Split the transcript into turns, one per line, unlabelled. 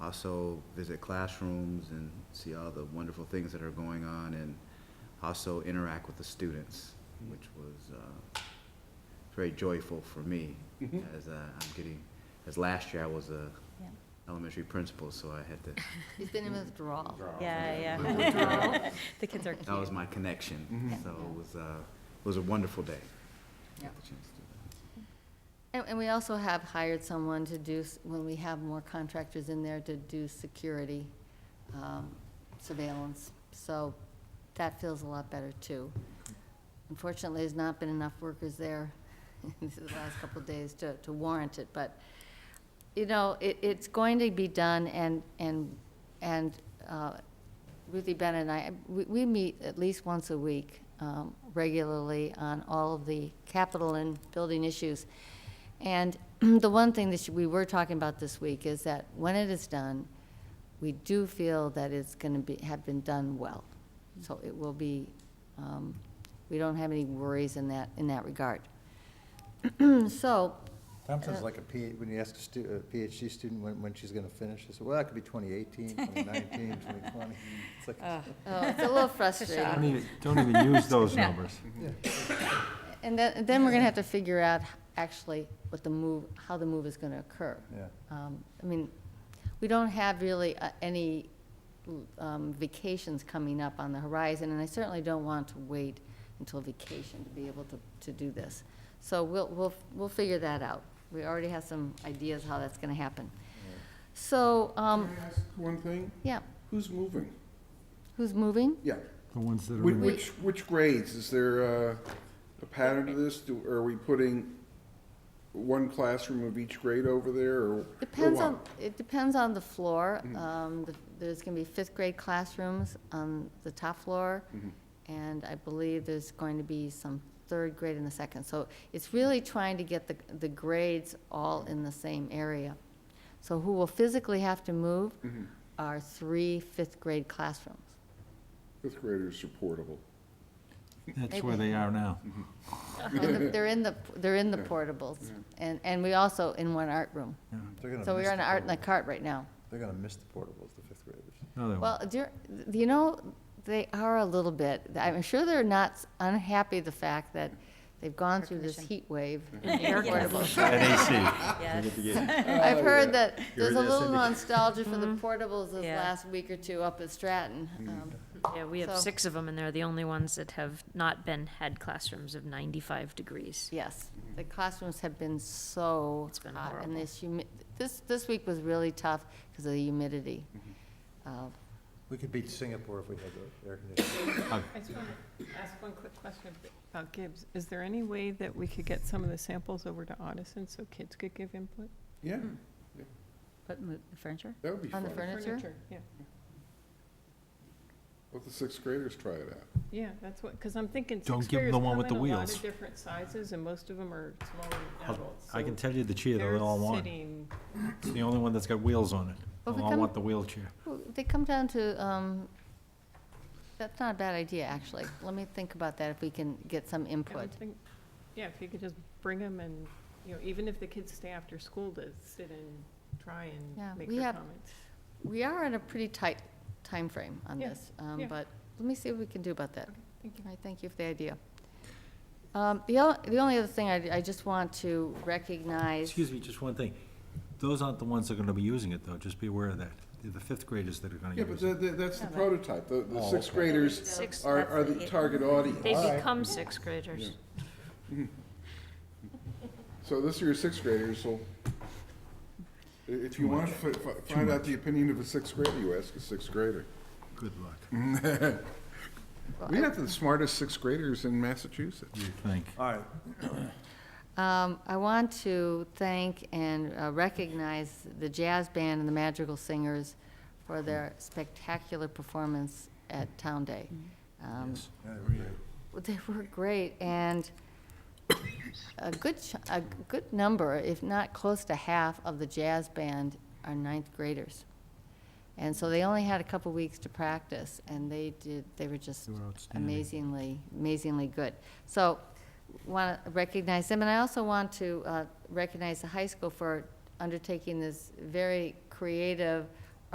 also visit classrooms and see all the wonderful things that are going on and also interact with the students, which was uh, very joyful for me
Mhm.
as uh, I'm getting, as last year I was a
Yeah.
elementary principal, so I had to,
He's been in withdrawal.
Yeah,
Withdrawal.
yeah. The kids are
that was
cute.
my connection.
Mhm.
So it was, uh, it was a wonderful day.
Yeah.
Got the chance to do that.
And, and we also have hired someone to do, s- when we have more contractors in there, to do security, um, surveillance. So that feels a lot better too. Unfortunately, there's not been enough workers there these are the last couple of days to, to warrant it, but, you know, it, it's going to be done and, and, and, uh, Ruthie Bennett and I, we, we meet at least once a week, um, regularly on all of the capital and building issues. And the one thing that we were talking about this week is that when it is done, we do feel that it's gonna be, have been done well. So it will be, um, we don't have any worries in that, in that regard. So, Uh.
Thompson's like a P, when you ask a stu, a PhD student when, when she's gonna finish, they say, well, that could be 2018, 2019, 2020. It's like,
Ugh.
oh, it's a little frustrating.
Don't even, don't even use those
No.
numbers.
And then, then we're gonna have to figure out actually what the move, how the move is gonna occur.
Yeah.
Um, I mean, we don't have really uh, any um, vacations coming up on the horizon, and I certainly don't want to wait until vacation to be able to, to do this. So we'll, we'll, we'll figure that out. We already have some ideas how that's gonna happen. So, um,
Can I ask One thing,
yeah,
who's moving?
who's moving?
Yeah,
The ones that are
Whi-
in the
which, which grades, is there uh, a pattern to this? Do- Are we putting one classroom of each grade over there, or? or
Depends
what?
on, it depends on the floor. Um, the- There's going to be fifth grade classrooms on the top floor, and I believe there's going to be some third grade in the second. So it's really trying to get the, the grades all in the same area. So who will physically have to move are three fifth grade classrooms.
Fifth graders are portable.
That's where they are now.
And the- They're in the, they're in the portables, and, and we also in one art room.
they're gonna
So
miss
we're in
the
art in the
portables.
cart right now.
They're gonna miss the portables, the fifth graders.
No, they
Well,
won't.
dear- you know, they are a little bit, I'm sure they're not unhappy the fact that they've gone through this heat wave. and air portables.
At
Yes.
I've heard that there's a little nostalgia for the
Mhm.
portables this
Yeah.
last week or two up at Stratton. Um,
Yeah, we have
So-
six of them, and they're the only ones that have not been, had classrooms of 95 degrees.
Yes, the classrooms have been so
Mm-hmm. It's been
hot, and
horrible.
this humi, this, this week was really tough because of the humidity. Uh,
We could beat Singapore if we had the air conditioning.
I just want to ask one quick question about Gibbs. Is there any way that we could get some of the samples over to Audison so kids could give input?
Yeah,
But mo- the furniture?
that would be fun.
On the furniture?
Yeah,
Let the sixth graders try it out.
yeah, that's what, because I'm thinking
Don't
sixth
give 'em
graders
the
come
one
in
with the
a lot
wheels.
of different sizes and most of them are smaller than
I'll-
adults.
I can
so
tell you the chair that
they're
they all want.
sitting-
It's the only one that's got wheels on
Well,
it.
if
They
we
all
come-
want the wheelchair.
Well, They come down to, um, that's not a bad idea, actually. Let me think about that, if we can get some
I would
input.
think- Yeah, if you could just bring them and, you know, even if the kids stay after school to sit and try
Yeah,
and make
we
their
have-
comments.
We are in a pretty tight time frame on
Yeah,
this, um,
yeah.
but let me see what we can do about that.
Thank you.
All right, thank you for the idea. Um, The o- the only other thing I I just want to recognize,
Excuse me, just one thing. Those aren't the ones that are gonna be using it, though. Just be aware of that. They're the fifth graders that are gonna
Yeah, but
use
the-
it.
the- that's the prototype. The the
Oh,
sixth
okay.
graders
Six,
are are the target audience.
they
All right.
become sixth graders.
So this year's sixth graders will, i- if you want to find out the opinion of a sixth grader, you ask a sixth grader.
Good luck.
We have the smartest sixth graders in Massachusetts.
You'd think.
All right,
um, I want to thank and uh, recognize the jazz band and the Madrigal Singers for their spectacular performance at Town Day.
Mm-hmm.
Um,
Yes.
Yeah, we're good.
Well, They were great, and a good, ch- a good number, if not close to half, of the jazz band are ninth graders. And so they only had a couple weeks to practice, and they did, they were just
They were outstanding.
amazingly, amazingly good. So, want to recognize them, and I also want to uh, recognize the high school for undertaking this very creative